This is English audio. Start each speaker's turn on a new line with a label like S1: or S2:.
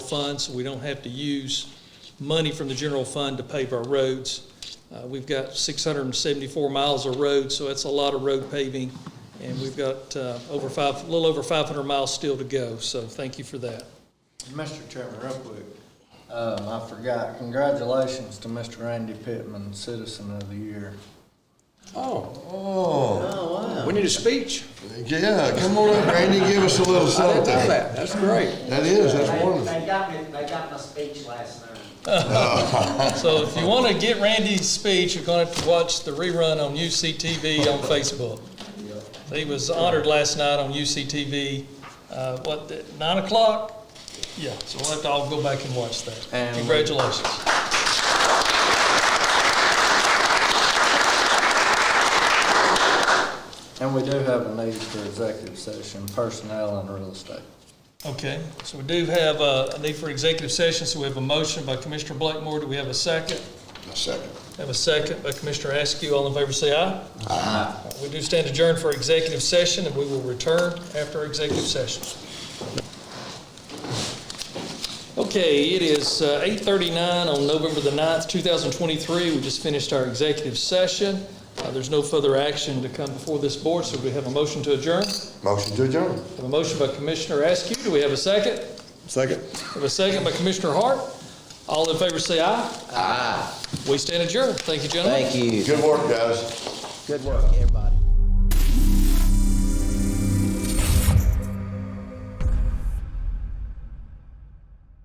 S1: fund, so we don't have to use money from the general fund to pave our roads. Uh, We've got 674 miles of road, so that's a lot of road paving, and we've got uh, over five, a little over 500 miles still to go, so thank you for that.
S2: Mr. Chairman, real quick, uh, I forgot, congratulations to Mr. Randy Pittman, Citizen of the Year.
S3: Oh,
S4: Oh,
S3: we need a speech.
S4: yeah, come on up, Randy, give us a little
S3: I didn't know
S4: something.
S3: that. That's great.
S4: That is, that's
S5: They
S4: wonderful.
S5: they got me, they got my speech last night.
S1: So if you want to get Randy's speech, you're going to have to watch the rerun on UCTV on Facebook. He was honored last night on UCTV, uh, what, the- nine o'clock? Yeah, so we'll have to all go back and watch that.
S2: And-
S1: Congratulations.
S2: And we do have a need for executive session, personnel and real estate.
S1: Okay, so we do have uh, a need for executive session, so we have a motion by Commissioner Blakemore. Do we have a second?
S4: A second.
S1: Have a second by Commissioner Askew. All in favor, say aye. Aye. We do stand adjourned for executive session, and we will return after executive session. Okay, it is uh, 8:39 on November the 9th, 2023. We just finished our executive session. Uh, There's no further action to come before this board, so we have a motion to adjourn.
S4: Motion to adjourn.
S1: Have a motion by Commissioner Askew. Do we have a second?
S4: Second.
S1: Have a second by Commissioner Hart. All in favor, say aye. Aye. We stand adjourned. Thank you, gentlemen.
S6: Thank you.
S4: Good work, guys.
S6: Good work, everybody.